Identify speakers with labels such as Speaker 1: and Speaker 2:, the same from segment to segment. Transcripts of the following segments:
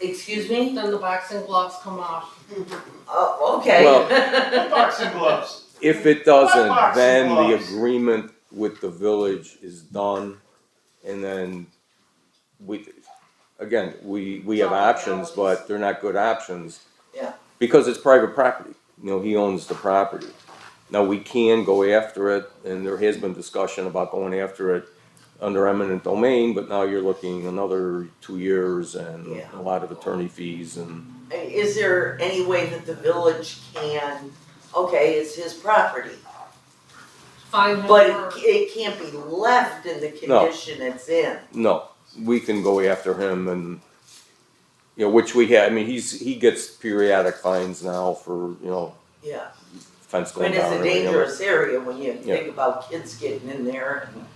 Speaker 1: Excuse me?
Speaker 2: Then the boxing gloves come off.
Speaker 1: Oh, okay.
Speaker 3: Boxing gloves.
Speaker 4: If it doesn't,
Speaker 3: Box of
Speaker 4: then the
Speaker 3: gloves.
Speaker 4: agreement with the village is done, and then we, again, we, we have
Speaker 2: Solid
Speaker 4: options,
Speaker 2: dollars.
Speaker 4: but they're not good options.
Speaker 1: Yeah.
Speaker 4: Because it's private property, you know, he owns the property. Now, we can go after it, and there has been discussion about going after it under eminent domain, but now you're looking another two years and
Speaker 1: Yeah.
Speaker 4: a lot of attorney fees and,
Speaker 1: Is there any way that the village can, okay, it's his property,
Speaker 2: Find him
Speaker 1: but
Speaker 2: for-
Speaker 1: it, it can't be left in the
Speaker 4: No.
Speaker 1: condition it's in?
Speaker 4: no, we can go after him and, you know, which we had, I mean, he's, he gets periodic fines now for, you know,
Speaker 1: Yeah,
Speaker 4: fence
Speaker 1: I mean,
Speaker 4: going
Speaker 1: it's
Speaker 4: down.
Speaker 1: a
Speaker 4: and everything else.
Speaker 1: dangerous area when you
Speaker 4: Yeah.
Speaker 1: think about kids getting in there and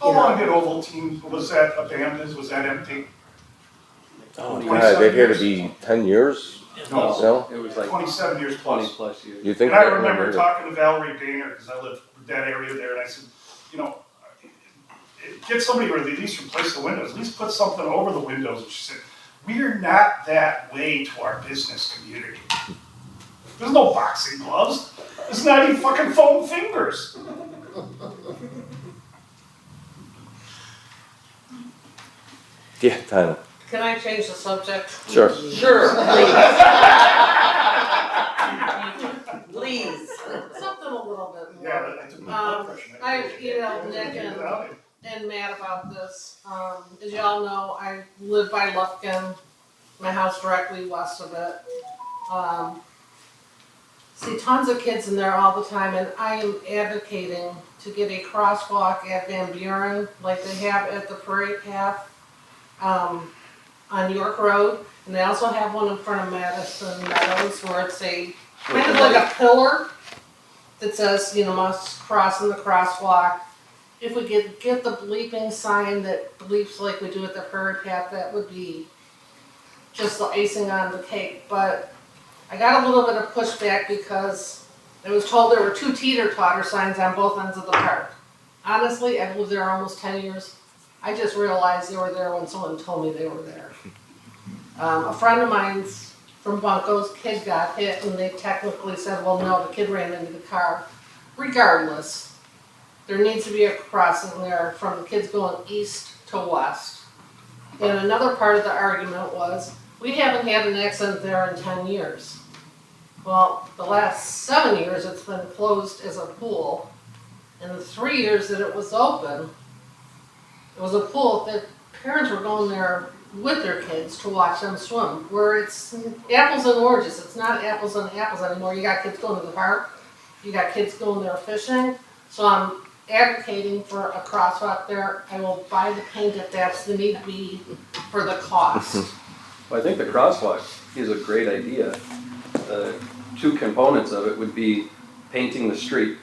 Speaker 3: How long did Ovaltine, was that abandoned, was that empty?
Speaker 4: Oh,
Speaker 3: Twenty
Speaker 4: God, they've
Speaker 3: seven
Speaker 4: had to
Speaker 3: years.
Speaker 4: be ten years,
Speaker 3: No.
Speaker 4: no?
Speaker 5: It was like
Speaker 3: Twenty-seven years
Speaker 5: twenty
Speaker 3: plus.
Speaker 5: plus years.
Speaker 4: You think?
Speaker 3: And I
Speaker 4: that
Speaker 3: remember
Speaker 4: number-
Speaker 3: talking to Valerie Danger, because I live in that area there, and I said, you know, get somebody to at least replace the windows, at least put something over the windows, and she said, we are not that way to our business community. There's no boxing gloves, there's not even fucking foam fingers.
Speaker 4: Yeah, Tyler,
Speaker 2: Can I change the subject?
Speaker 4: sure.
Speaker 1: Sure, please. Please.
Speaker 2: Something a little bit more.
Speaker 3: Yeah, I took my blood pressure.
Speaker 2: Um, I've emailed Nick and- and mad about this. Um, as y'all know, I live by Lufkin, my house directly west of it. Um, see tons of kids in there all the time, and I am advocating to get a crosswalk at Van Buren like they have at the parade path um, on York Road. And they also have one in front of Madison Meadows where it's a kind of like a pillar that says, you know, must cross in the crosswalk. If we could get the bleeping sign that bleeps like we do at the parade path, that would be just the icing on the cake, but I got a little bit of pushback because I was told there were two teeter-totter signs on both ends of the park. Honestly, I've lived there almost ten years, I just realized they were there when someone told me they were there. Um, a friend of mine's from Bunko's kid got hit and they technically said, well, no, the kid ran into the car. Regardless, there needs to be a crossing there from the kids going east to west. And another part of the argument was, we haven't had an accident there in ten years. Well, the last seven years, it's been closed as a pool. And the three years that it was open, it was a pool that parents were going there with their kids to watch them swim, where it's apples and oranges, it's not apples and apples anymore. You got kids going to the park, you got kids going there fishing, so I'm advocating for a crosswalk there. I will buy the paint if that's the need be for the cost.
Speaker 5: Well, I think the crosswalk is a great idea. The two components of it would be painting the street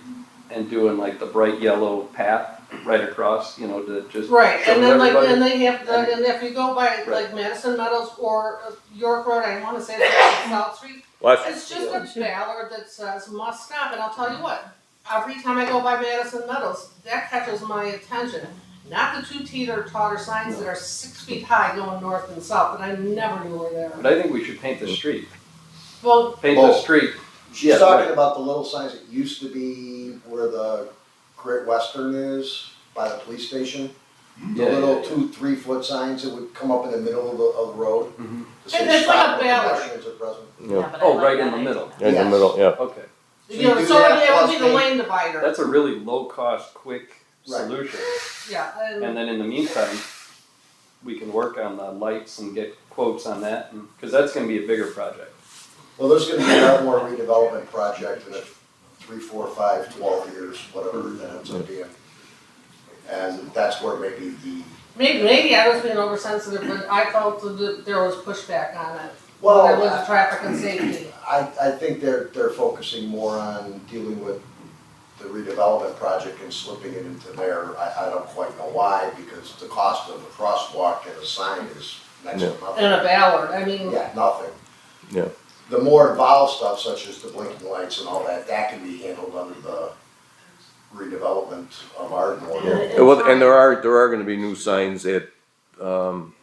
Speaker 5: and doing like the bright yellow path right across, you know, to just
Speaker 2: Right,
Speaker 5: show
Speaker 2: and then like,
Speaker 5: everybody.
Speaker 2: and they have, the- and if you go by like
Speaker 5: Right.
Speaker 2: Madison Meadows or uh, York Road, I wanna say that's South Street,
Speaker 4: Well,
Speaker 2: It's just a ballard that says must stop, and I'll tell you what, every time I go by Madison Meadows, that catches my attention. Not the two teeter totter signs that are six feet high going north and south, that I never knew were
Speaker 5: But
Speaker 2: there.
Speaker 5: I think we should paint the street,
Speaker 2: Well,
Speaker 5: paint the
Speaker 6: Both.
Speaker 5: street, Yeah,
Speaker 6: She's talking
Speaker 5: right.
Speaker 6: about the little signs that used to be where the Great Western is by the police station. The
Speaker 5: Yeah, yeah,
Speaker 6: little
Speaker 5: yeah.
Speaker 6: two, three foot signs that would come up in the middle of the, of the road.
Speaker 5: Mhm.
Speaker 6: to say
Speaker 2: And it's like
Speaker 6: stop
Speaker 2: a
Speaker 6: for
Speaker 2: banner.
Speaker 6: pedestrians at present.
Speaker 4: yeah,
Speaker 5: oh, right in the middle,
Speaker 4: in the
Speaker 6: Yes.
Speaker 4: middle, yeah.
Speaker 5: okay.
Speaker 6: So
Speaker 2: you
Speaker 6: you
Speaker 2: know,
Speaker 6: do
Speaker 2: so
Speaker 6: that
Speaker 2: it would
Speaker 6: plus
Speaker 2: be the
Speaker 6: paint.
Speaker 2: lane divider,
Speaker 5: That's a really low cost, quick
Speaker 6: Right.
Speaker 5: solution.
Speaker 2: yeah,
Speaker 5: And
Speaker 2: and,
Speaker 5: then in the meantime, we can work on the lights and get quotes on that, and, cause that's gonna be a bigger project.
Speaker 6: Well, there's gonna be a lot more redevelopment project in the three, four, five, twelve years, whatever that ends up being. And that's where maybe the,
Speaker 2: maybe, maybe I was being oversensitive, but I felt that there was pushback on it.
Speaker 6: well.
Speaker 2: There was traffic and safety.
Speaker 6: I, I think they're, they're focusing more on dealing with the redevelopment project and slipping it into there. I, I don't quite know why, because the cost of a crosswalk and a sign is next to
Speaker 2: And a
Speaker 6: nothing.
Speaker 2: ballard, I mean,
Speaker 6: Yeah, nothing.
Speaker 4: Yeah.
Speaker 6: The more involved stuff such as the blinking lights and all that, that can be handled under the redevelopment of our
Speaker 4: Yeah.
Speaker 6: normal.
Speaker 4: Well, and there are, there are gonna be new signs at, um,